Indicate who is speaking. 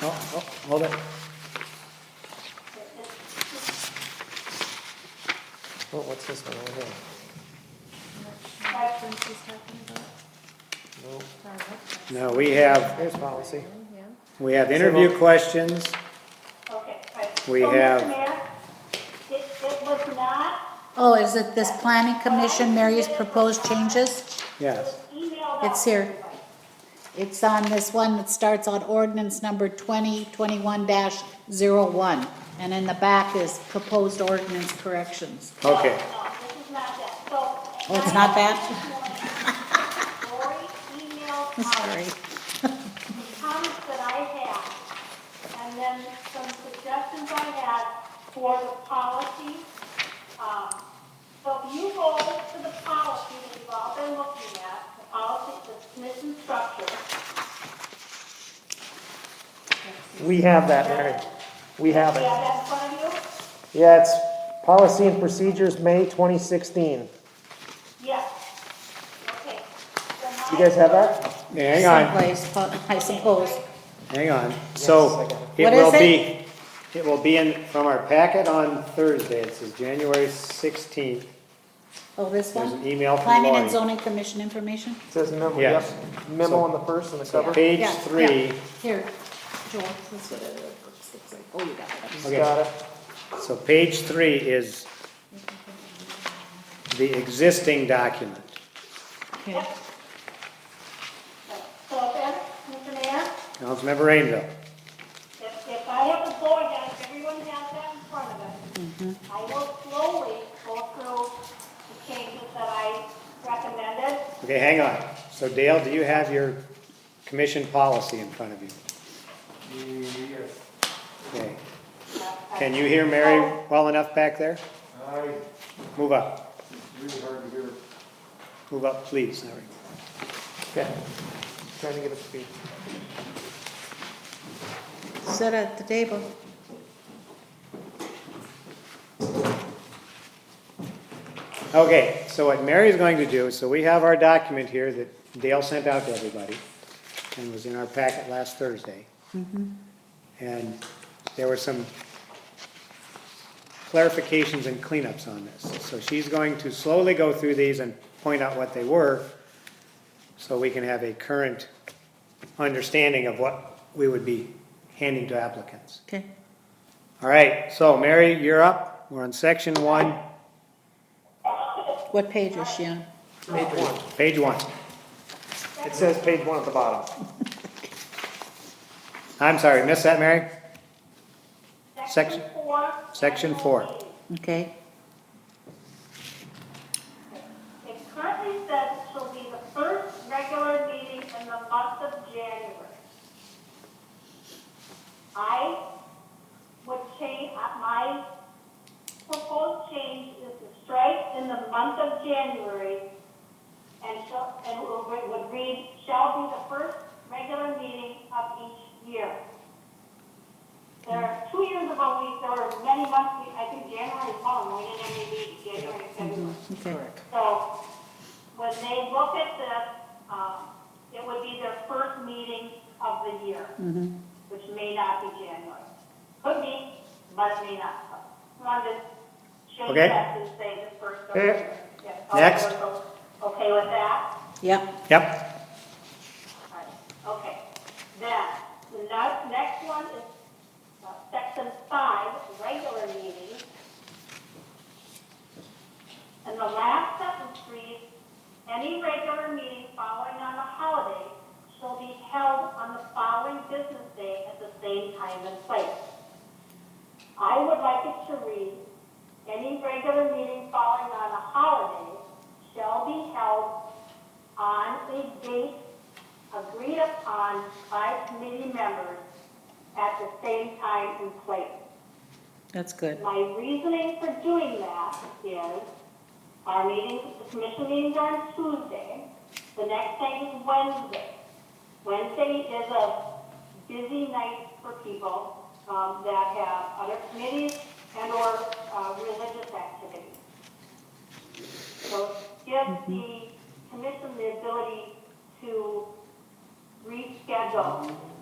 Speaker 1: No, no,
Speaker 2: oh,
Speaker 1: hold it. Oh, what's this one over here?
Speaker 3: That's what she's talking about,
Speaker 1: No,
Speaker 3: our website.
Speaker 2: No, we have,
Speaker 1: There's policy.
Speaker 3: Yeah.
Speaker 2: we have interview questions.
Speaker 4: Okay, right.
Speaker 2: We
Speaker 4: So, Mr.
Speaker 2: have-
Speaker 4: Mayor, It, it was not,
Speaker 5: Oh, is it this planning commission, Mary's proposed changes?
Speaker 2: Yes,
Speaker 4: emailed out.
Speaker 5: It's here. It's on this one that starts on ordinance number twenty twenty-one dash zero one. And in the back is proposed ordinance corrections.
Speaker 2: okay.
Speaker 4: No, this is not that, so.
Speaker 5: Oh, it's not that?
Speaker 4: Lori emailed
Speaker 5: I'm
Speaker 4: out
Speaker 5: Sorry.
Speaker 4: the comments that I had, and then some suggestions I had for the policy. Um, So if you go to the policy that you've all been looking at, the policy, the commission structure,
Speaker 1: We have that, Mary. We have
Speaker 4: we
Speaker 1: it.
Speaker 4: have that in front of you?
Speaker 1: Yeah, it's policy and procedures, May twenty sixteen.
Speaker 4: Yes. Okay.
Speaker 1: You guys have that?
Speaker 2: Hang on,
Speaker 5: Someplace, I suppose.
Speaker 2: hang on.
Speaker 1: I
Speaker 2: So
Speaker 1: got
Speaker 2: it
Speaker 5: What is
Speaker 2: will
Speaker 5: it?
Speaker 2: be, it will be in, from our packet on Thursday. It says January 16th.
Speaker 5: Oh, this
Speaker 2: There's
Speaker 5: one?
Speaker 2: an email from
Speaker 5: Planning and
Speaker 2: Lori.
Speaker 5: zoning commission information?
Speaker 1: It says memo, yep.
Speaker 2: Yes.
Speaker 1: Memo on the first and the cover. Just
Speaker 2: Page
Speaker 5: Yeah, yeah.
Speaker 2: three,
Speaker 5: Here, Joel, this is what it looks like. Oh, you got it.
Speaker 2: Okay.
Speaker 1: got it.
Speaker 2: so page three is the existing document.
Speaker 5: Okay.
Speaker 4: So then, Mr. Mayor,
Speaker 2: Councilmember Rainville.
Speaker 4: if, if I have a board down, if everyone has that in front of us, I will slowly go through the changes that I recommended.
Speaker 2: Okay, hang on. So Dale, do you have your commission policy in front of you?
Speaker 6: Yes,
Speaker 2: Okay. Can you hear Mary well enough back there?
Speaker 6: I
Speaker 2: Move up,
Speaker 6: really hard to hear.
Speaker 2: move up, please. There we go.
Speaker 1: Okay. Trying to get up to speed.
Speaker 5: Sit at the table.
Speaker 2: Okay, so what Mary's going to do, so we have our document here that Dale sent out to everybody and was in our packet last Thursday. And there were some clarifications and cleanups on this. So she's going to slowly go through these and point out what they were so we can have a current understanding of what we would be handing to applicants.
Speaker 5: Okay.
Speaker 2: All right, so Mary, you're up. We're on section one,
Speaker 5: What page is she on?
Speaker 1: Page one.
Speaker 2: page one.
Speaker 1: It says page one at the bottom.
Speaker 2: I'm sorry, missed that, Mary?
Speaker 4: Section
Speaker 2: Section-
Speaker 4: four.
Speaker 2: Section four.
Speaker 5: Okay.
Speaker 4: It currently says it shall be the first regular meeting in the month of January. I would change, uh, my proposed change is to strike in the month of January and shall, and it would it would read, shall be the first regular meeting of each year. There are two years ago, we, there were many months, we- I think January is one, we didn't have any meeting, January, February.
Speaker 5: Okay.
Speaker 4: So when they look at this, um, it would be their first meeting of the year,
Speaker 2: Mm-hmm.
Speaker 4: which may not be January. Could be, but it may not. So I Wanted to change
Speaker 2: Okay.
Speaker 4: that to say the first of the
Speaker 2: Okay.
Speaker 4: year. If all
Speaker 2: Next.
Speaker 4: those are Okay with that?
Speaker 5: Yep.
Speaker 2: Yep,
Speaker 4: All right, Okay, then, the ne- next one is uh, section five, regular meetings. And the last sentence reads, any regular meeting following on a holiday shall be held on the following business day at the same time and place. I would like it to read, any regular meeting following on a holiday shall be held on a date agreed upon by committee members at the same time and place.
Speaker 5: That's good.
Speaker 4: My reasoning for doing that is, our meeting, the commission meetings are on Tuesday, the next thing is Wednesday. Wednesday is a busy night for people, um, that have other committees and or, uh, religious activities. So give the commission the ability to reschedule